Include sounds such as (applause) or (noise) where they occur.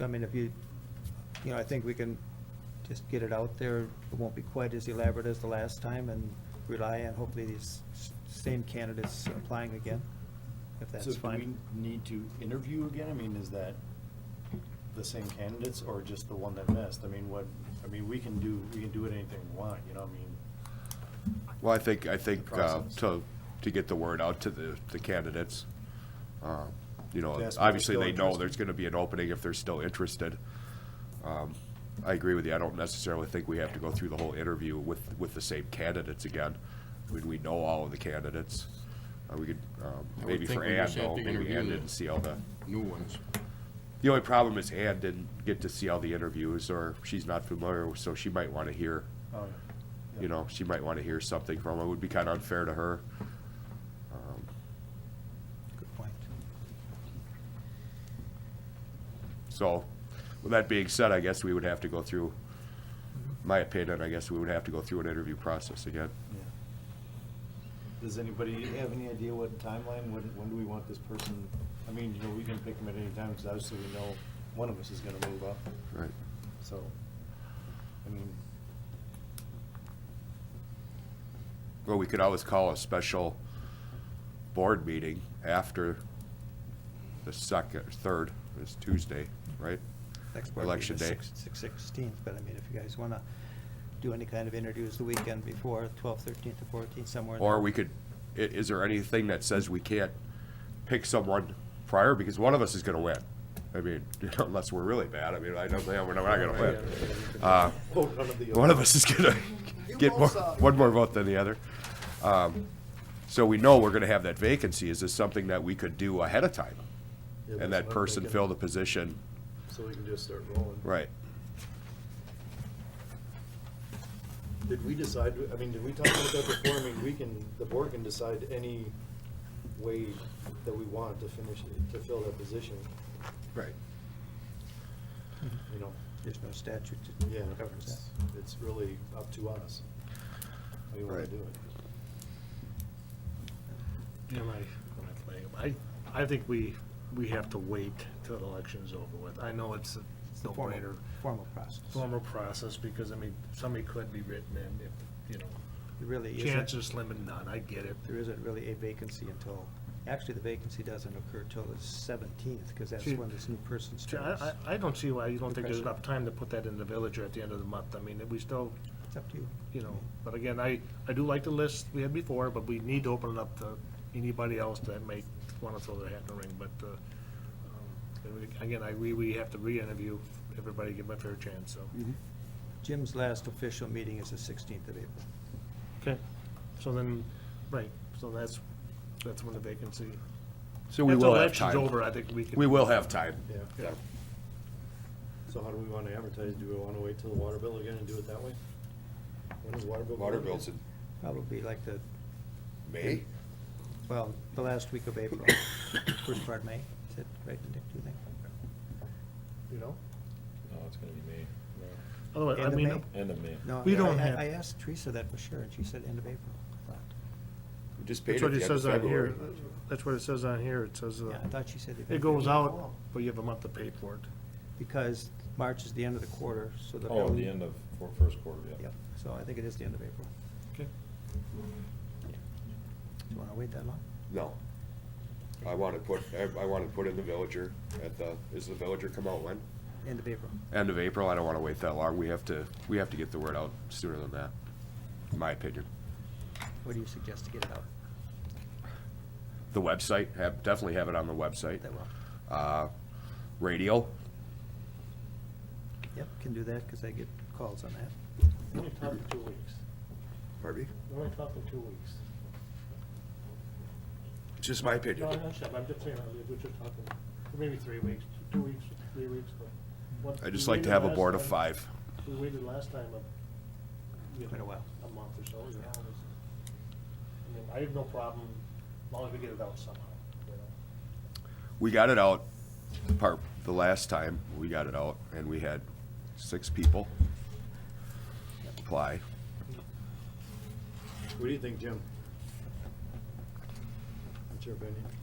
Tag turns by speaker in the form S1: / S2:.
S1: I mean, if you, you know, I think we can just get it out there. It won't be quite as elaborate as the last time and rely on hopefully these s- same candidates applying again, if that's
S2: So do
S1: fine.
S2: we need to interview again? I mean, is that the same candidates or just the one that missed? I mean, what, I mean, we can do, we can do it anything we want, you know, I mean,
S3: Well, I think, I think, uh,
S2: process.
S3: to, to get the word out to the, the candidates, uh, you know,
S2: To ask if they're
S3: obviously
S2: still
S3: they know
S2: interested.
S3: there's gonna be an opening if they're still interested. Um, I agree with you, I don't necessarily think we have to go through the whole interview with, with the same candidates again. I mean, we know all of the candidates, uh, we could, um,
S4: I would
S3: maybe
S4: think
S3: for
S4: we
S3: Ann,
S4: just have
S3: though,
S4: to
S3: maybe
S4: interview
S3: Ann
S4: the-
S3: didn't see all the,
S4: new ones.
S3: the only problem is Ann didn't get to see all the interviews, or she's not familiar, so she might wanna hear
S2: oh,
S3: you know, she might want to hear something from it. Would be kind of unfair to her. Um,
S1: Good point.
S3: So, with that being said, I guess we would have to go through, my opinion, I guess we would have to go through an interview process again.
S2: yeah. Does anybody have any idea what timeline, when, when do we want this person? I mean, you know, we can pick them at any time, because obviously we know one of us is gonna move up,
S3: Right.
S2: so, I mean,
S3: Well, we could always call a special board meeting after the second, third, is Tuesday, right?
S1: Next board meeting
S3: Election
S1: is
S3: day.
S1: six- six- Sixteenth, but I mean, if you guys want to do any kind of interviews the weekend before, twelfth, thirteenth, or fourteenth, somewhere. in
S3: Or
S1: there.
S3: we could, i- is there anything that says we can't pick someone prior, because one of us is gonna win? I mean, (laughs) unless we're really bad, I mean, I don't think, we're not gonna win. Uh,
S2: oh, none of the.
S3: One of us is gonna get more, one more vote than the other. Um, So we know we're gonna have that vacancy, is this something that we could do ahead of time?
S2: Yeah,
S3: And
S2: that's what
S3: that
S2: I'm
S3: person
S2: thinking.
S3: fill the position,
S2: So we can just start rolling.
S3: right?
S2: Did we decide, I mean, did we talk about that before? I mean, we can, the board can decide any way that we want to finish, to fill that position,
S3: Right.
S2: you know?
S1: There's no statute
S2: Yeah,
S1: that covers that.
S2: it's, it's really up to us. How you wanna
S3: Right.
S2: do it.
S5: Am I, am I, I think we, we have to wait till the election's over with. I know it's a
S1: It's a formal,
S5: no-brainer,
S1: formal process.
S5: formal process, because, I mean, somebody could be written in, if, you know,
S1: It really isn't.
S5: chances slim and none, I get it.
S1: there isn't really a vacancy until, actually, the vacancy doesn't occur till the seventeenth, because that's
S5: See,
S1: when this new person
S5: See, I,
S1: starts.
S5: I, I don't see why you don't think there's
S1: Depression.
S5: enough time to put that in the villager at the end of the month. I mean, we still,
S1: It's up to you.
S5: you know, but again, I, I do like the list we had before, but we need to open it up to anybody else that may want to throw their hat in the ring, but, uh, um, and we- again, I, we, we have to re-interview everybody, give them a fair chance, so.
S3: Mm-hmm.
S1: Jim's last official meeting is the sixteenth of April.
S5: Okay, so then, right, so that's, that's when the vacancy.
S3: So we will have
S5: If the election's over,
S3: time.
S5: I think we can.
S3: We will have time.
S2: Yeah,
S5: Yeah,
S2: so how do we wanna advertise? Do we wanna wait till the water bill again and do it that way? When is water bill?
S3: Water
S2: going
S3: bills
S2: again?
S3: in
S1: Probably like the,
S3: May?
S1: well, the last week of
S5: (coughs)
S1: April, first part of May, is that right, Dick, do you think?
S5: you know,
S6: No, it's gonna be May,
S5: otherwise, I
S1: End of
S5: mean,
S1: May?
S6: end of May.
S1: No,
S5: We
S1: I-
S5: don't
S1: I-
S5: have-
S1: I asked Teresa that for sure, and she said end of April.
S3: We just paid
S5: that's
S3: it
S5: what
S3: the
S5: it
S3: end of
S5: says on
S3: February.
S5: here, that's what it says on here, it says, uh,
S1: Yeah, I thought she said.
S5: it goes out, but you have a month to pay for it.
S1: Because March is the end of the quarter, so the.
S6: Oh,
S1: bill-
S6: the end of, for first quarter, yeah.
S1: Yep, so I think it is the end of April.
S5: Okay.
S1: Do you want to wait that long?
S3: No. I want to put, I- I want to put in the villager at the, is the villager come out when?
S1: End of April.
S3: end of April, I don't want to wait that long. We have to, we have to get the word out sooner than that, in my opinion.
S1: What do you suggest to get it out?
S3: The website, have, definitely have it on the website.
S1: That well?
S3: Uh, radio,
S1: Yep, can do that, because I get calls on that.
S5: Only talking two weeks,
S3: Harvey?
S5: only talking two weeks.
S3: It's just my opinion.
S5: I'm just saying, we're just talking, maybe three weeks, two weeks, three weeks,
S3: I just like to have a board of five.
S5: We waited last time a. you know,
S1: Quite a while.
S5: A month or so, you know, it was- I mean, I have no problem, as long as we get it out somehow, you know.
S3: We got it out, part, the last time, we got it out, and we had six people apply.
S2: What do you think, Jim? What's your opinion?